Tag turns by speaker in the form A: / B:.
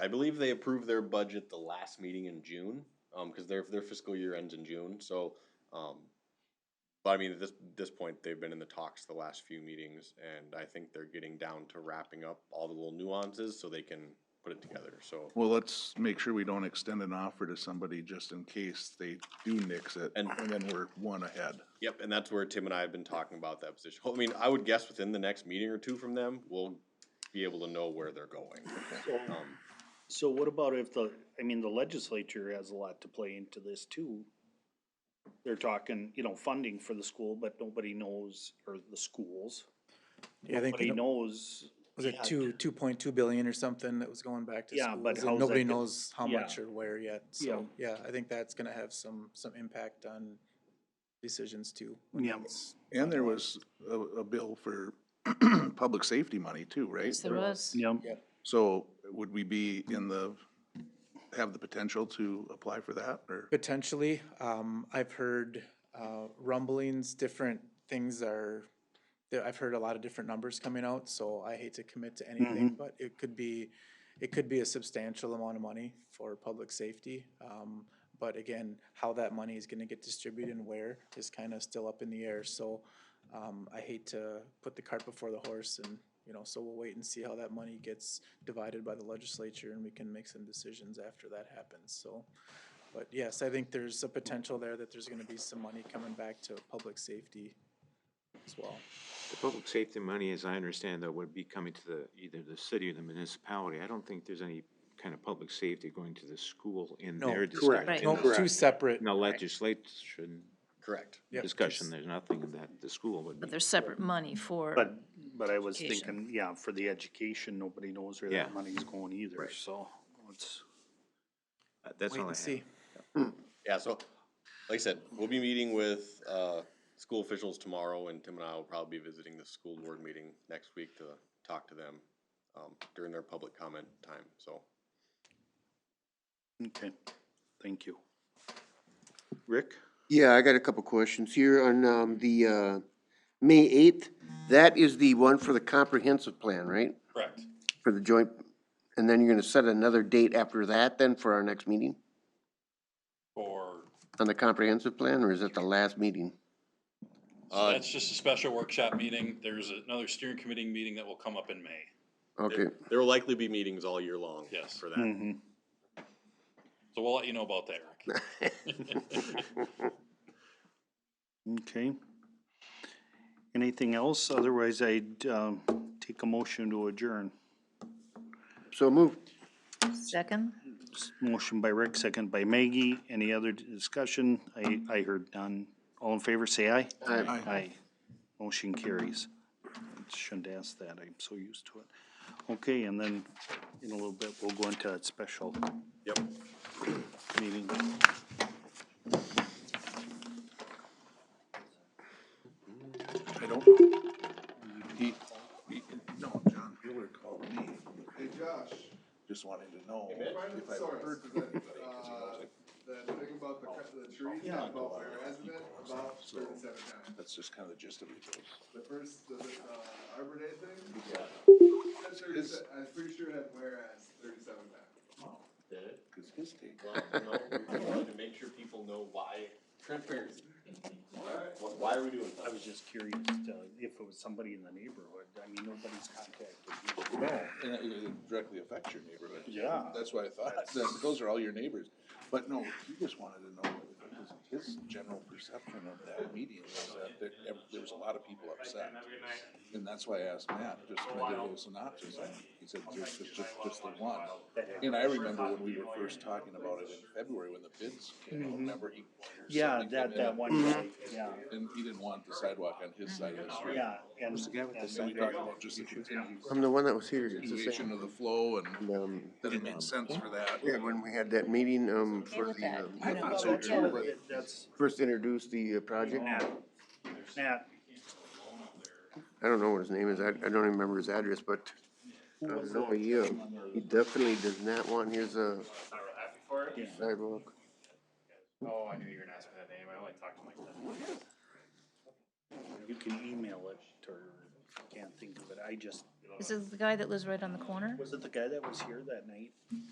A: I believe they approved their budget the last meeting in June, um, because their, their fiscal year ends in June, so, um, but I mean, at this, this point, they've been in the talks the last few meetings, and I think they're getting down to wrapping up all the little nuances so they can put it together, so.
B: Well, let's make sure we don't extend an offer to somebody just in case they do nix it, and
A: And-
B: then we're one ahead.
A: Yep, and that's where Tim and I have been talking about that position. I mean, I would guess within the next meeting or two from them, we'll be able to know where they're going. Um,
C: So what about if the, I mean, the legislature has a lot to play into this too. They're talking, you know, funding for the school, but nobody knows, or the schools,
D: Yeah, I think,
C: nobody
D: it
C: knows.
D: was it two, two point two billion or something that was going back to
C: Yeah,
D: schools?
C: but
D: and
C: how's that
D: Nobody
C: get-
D: knows how
C: Yeah.
D: much or where yet, so, yeah, I think that's gonna have some, some impact on decisions too. when
C: Yeah.
D: that's-
B: And there was a, a bill for public safety money too, right?
E: Yes, there was.
C: Yeah,
B: So would we be in the, have the potential to apply for that, or?
D: Potentially, um, I've heard, uh, rumblings, different things are, there, I've heard a lot of different numbers coming out, so I hate to commit to anything, but it could be, it could be a substantial amount of money for public safety. Um, but again, how that money is gonna get distributed and where is kinda still up in the air, so, um, I hate to put the cart before the horse and, you know, so we'll wait and see how that money gets divided by the legislature and we can make some decisions after that happens, so. But yes, I think there's a potential there that there's gonna be some money coming back to public safety as well.
F: The public safety money, as I understand though, would be coming to the, either the city or the municipality. I don't think there's any kind of public safety going to the school in
D: No.
F: their
D: Correct.
F: discussion.
E: Right.
F: in
D: No,
F: the-
D: two separate.
F: In the legislation
A: Correct.
D: yep,
F: discussion,
D: just-
F: there's nothing that the school would
E: But
F: be.
E: there's separate money for.
C: but, but I was
E: Education.
C: thinking, yeah, for the education, nobody knows where
F: Yeah.
C: that money's going either, so. it's-
F: Uh, That's
D: Wait
F: all I
D: and
F: have.
D: see.
A: Yeah, so, like I said, we'll be meeting with, uh, school officials tomorrow, and Tim and I will probably be visiting the school board meeting next week to talk to them, um, during their public comment time, so.
C: Okay, thank you.
F: Rick?
G: Yeah, I got a couple questions here on, um, the, uh, May eighth. That is the one for the comprehensive plan, right?
A: Correct.
G: For the joint, and then you're gonna set another date after that then for our next meeting?
H: Or,
G: On the comprehensive plan, or is it the last meeting?
H: so that's just a special workshop meeting. There's another steering committee meeting that will come up in May.
G: Okay,
A: There will likely be meetings all year long.
H: Yes.
A: For that.
H: So we'll let you know about that, Rick.
C: Okay. Anything else? Otherwise, I'd, um, take a motion to adjourn.
G: so move.
E: Second?
C: Motion by Rick, second by Maggie. Any other discussion? I, I heard none. All in favor, say aye.
G: Aye.
C: Aye. Motion carries. Shouldn't ask that. I'm so used to it. Okay, and then in a little bit, we'll go into a special
A: Yep.
C: meeting.
B: I don't. He, he, no, John Mueller called me. Hey, Josh. Just wanted to know if I heard from anybody, cause he knows it.
I: that thing about the, cut- the trees,
B: Yeah.
I: about my resident, about thirty-seven times.
B: That's just kinda the gist of it.
I: The first, the, uh, Arbor Day thing,
B: Yeah.
I: that thirty-seven, I'm pretty sure it had whereas thirty-seven times.
B: Cause his take.
A: We wanted to make sure people know why, transparency. Why- Why are we doing that?
C: I was just curious to, if it was somebody in the neighborhood. I mean, nobody's contacted. me.
B: And it- it directly affects your neighborhood.
C: Yeah.
B: That's what I thought, That- those are all your neighbors, but no, he just wanted to know, what his- his general perception of that meeting was that there, ev- there was a lot of people upset. And that's why I asked Matt, just to make those synopsis, and he said, just, just, just, just the one. And I remember when we were first talking about it in February, when the bids came out, remember he.
C: Mm-hmm. Yeah,
B: somebody
C: that,
B: came in
C: that one, guy, yeah,
B: And he didn't want the sidewalk on his side of the street.
C: yeah. And
B: Was the guy with the
C: and-
B: sidewalk? We talked about just the continued
G: I'm the one that was here. It's the
B: continuation
G: same.
B: of the flow and
G: Um,
B: that it made sense for that.
G: Yeah, when we had that meeting, um,
E: Okay
G: for
E: with
G: the,
E: that.
G: um,
E: I
B: thought
C: So,
B: so
C: yeah,
B: too,
G: but-
C: That's,
G: first introduced the uh, project.
C: Nat, Nat,
G: I don't know what his name is, I, I don't remember his address, but I know he, uh, he definitely does not want his, uh, sidewalk.
C: you can email it, or if you can't think of it, I just,
E: This is the guy that lives right on the corner?
C: was it the guy that was here that night?